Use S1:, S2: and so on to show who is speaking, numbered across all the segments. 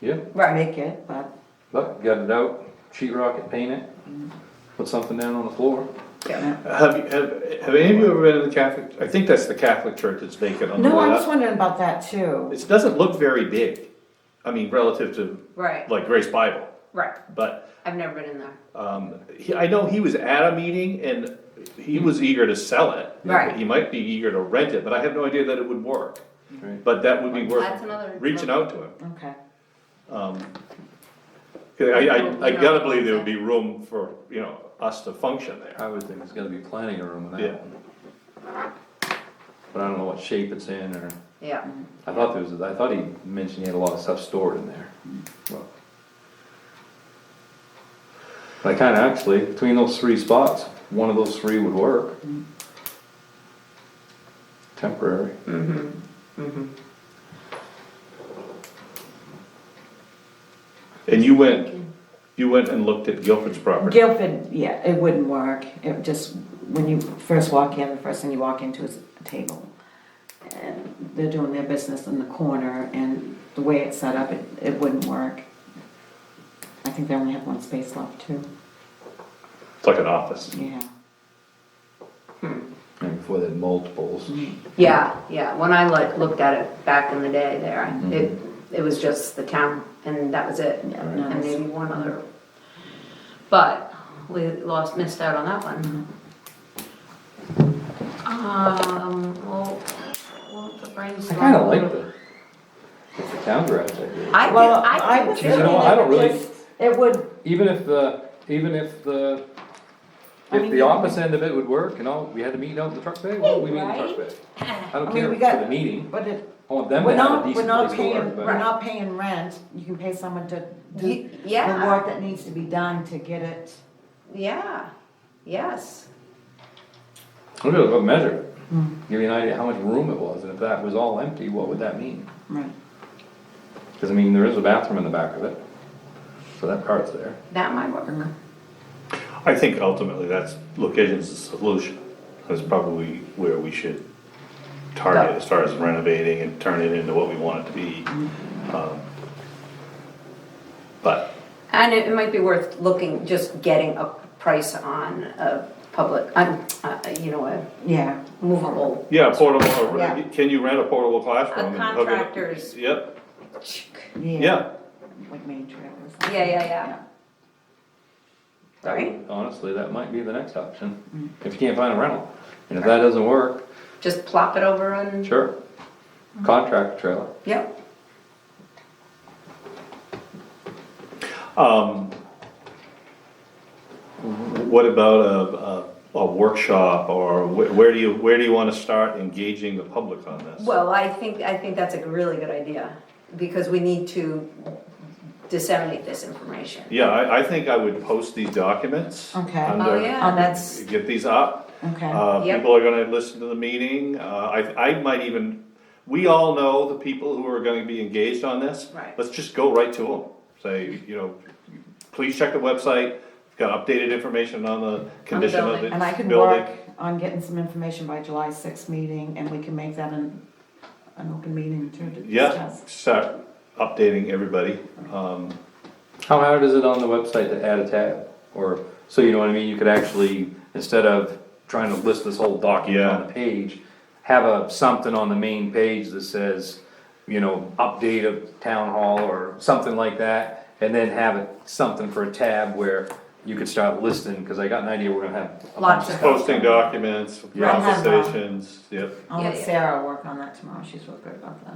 S1: Yeah,
S2: Right, make it, but,
S1: but got it out, sheet rock it, paint it, put something down on the floor.
S2: yeah.
S3: Have you, have, have any of you ever been to the Catholic, I think that's the Catholic church that's vacant on the
S2: No,
S3: way
S2: I'm just
S3: up.
S2: wondering about that too.
S3: It doesn't look very big, I mean, relative to
S4: Right,
S3: like Grace Bible,
S4: right.
S3: but
S4: I've never been in there.
S3: Um, he, I know he was at a meeting and he was eager to sell it.
S4: Right.
S3: He might be eager to rent it, but I have no idea that it would work.
S1: Right.
S3: But that would be
S4: That's another-
S3: worth reaching out to him.
S2: Okay.
S3: Um, 'cause I, I, I gotta believe there would be room for, you know, us to function there.
S1: I would think it's gonna be plenty of room in
S3: Yeah.
S1: that one. But I don't know what shape it's in or,
S4: Yeah.
S1: I thought there was, I thought he mentioned he had a lot of stuff stored in there. Well, But I kinda actually, between those three spots, one of those three would work. Temporary.
S3: And you went, you went and looked at Guilford's property.
S2: Guilford, yeah, it wouldn't work. It just, when you first walk in, the first thing you walk into is a table. And they're doing their business in the corner and the way it's set up, it, it wouldn't work. I think they only have one space left too,
S3: It's like an office.
S2: yeah.
S1: And before they had multiples.
S4: Yeah, yeah. When I like looked at it back in the day there, I- it, it was just the town and that was it.
S2: Yeah, no,
S4: And
S2: it's-
S4: maybe one other. But we lost, missed out on that one. Um, well, well, the brain's.
S1: I kinda like the, the town garage idea.
S4: I think,
S2: Well,
S4: I think
S2: was
S1: You
S2: thinking
S1: know,
S4: too.
S1: what, I don't
S2: it
S1: really-
S2: just- It would,
S1: Even if the, even if the,
S2: I
S1: if
S2: mean,
S1: the
S2: you-
S1: office end of it would work and all, we had a meeting out in the truck bay, well, we meet in the truck bay. I don't
S2: I
S1: care
S2: mean,
S1: for
S2: we got.
S1: the meeting,
S2: But it,
S1: I want them
S2: we're
S1: to have a
S2: not, we're
S1: decent
S2: not
S1: place to
S2: paying,
S1: work,
S2: we're
S1: but
S2: not paying rent. You can pay someone to do
S4: Ye-
S2: the
S4: yeah.
S2: work that needs to be done to get it.
S4: Yeah, yes.
S1: we'll do a good measure.
S2: Mm.
S1: Give you an idea how much room it was, and if that was all empty, what would that mean?
S2: Right.
S1: Cause I mean, there is a bathroom in the back of it, so that part's there.
S4: That might work.
S3: I think ultimately that's, location's the solution. That's probably where we should target as far as renovating and turn it into what we want it to be. Um, But,
S4: And it it might be worth looking, just getting a price on a public, on, uh, you know, a
S2: Yeah.
S4: movable.
S3: yeah, portable, or-
S2: Yeah.
S3: can you rent a portable classroom?
S4: A
S3: and hook it up?
S4: contractor's-
S3: Yep, yeah,
S2: Yeah. Like main trailers.
S4: Yeah, yeah, yeah.
S1: That
S4: Right.
S1: would- Honestly, that might be the next option,
S2: Mm.
S1: if you can't find a rental, and if that doesn't work,
S4: Just plop it over and,
S1: sure, contract trailer.
S4: yep.
S3: um, what about a, a, a workshop, or wh- where do you, where do you wanna start engaging the public on this?
S4: Well, I think, I think that's a really good idea, because we need to disseminate this information.
S3: Yeah, I, I think I would post these documents.
S2: Okay.
S3: under-
S4: Oh, yeah,
S2: Um,
S4: that's,
S3: Get these up.
S2: Okay.
S3: Uh,
S4: Yep.
S3: people are gonna listen to the meeting, uh, I, I might even, we all know the people who are gonna be engaged on this.
S4: Right.
S3: Let's just go right to them, say, you know, please check the website, It's got updated information on the condition of the
S4: building.
S3: building.
S2: And I can work on getting some information by July sixth meeting and we can make that an, an open meeting to
S3: Yeah,
S2: discuss.
S3: start updating everybody, um,
S1: How hard is it on the website to add a tab? Or, so you know what I mean, you could actually, instead of trying to list this whole document on
S3: Yeah.
S1: the page, have a, something on the main page that says, you know, update of town hall or something like that, and then have it, something for a tab where you could start listing, cause I got an idea we're gonna have. a bunch
S4: Lots of-
S1: stuff.
S3: posting documents,
S1: Yeah.
S3: conversations, yep.
S2: I'll
S4: Yeah,
S2: let
S4: yeah.
S2: Sarah work on that tomorrow. She's real good about that.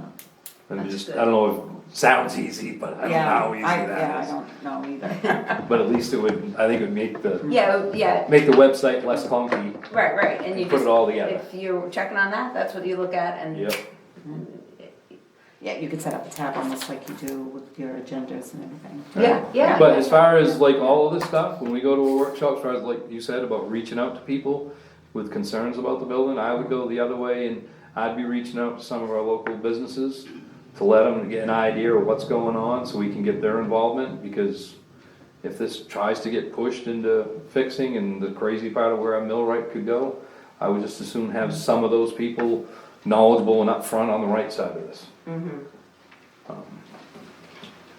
S1: And just,
S4: That's
S1: I don't know, if sounds easy, but I don't know
S2: Yeah.
S1: how easy
S2: I- Yeah,
S1: that
S2: I
S1: is.
S2: don't know either.
S1: But at least it would, I think it would make the,
S4: yeah, yeah,
S1: make the website less clunky.
S4: right, right, and you
S1: Put
S4: just.
S1: it all together.
S4: If you're checking on that, that's what you look at and.
S1: Yep.
S2: Yeah, you could set up a tab almost like you do with your agendas and everything.
S4: Yeah, yeah.
S1: But as far as like all of this stuff, when we go to a workshop, as far as like you said about reaching out to people with concerns about the building, I would go the other way and I'd be reaching out to some of our local businesses to let them get an idea of what's going on so we can get their involvement because if this tries to get pushed into fixing and the crazy part of where a millwright could go, I would just as soon have some of those people knowledgeable and upfront on the right side of this. Um,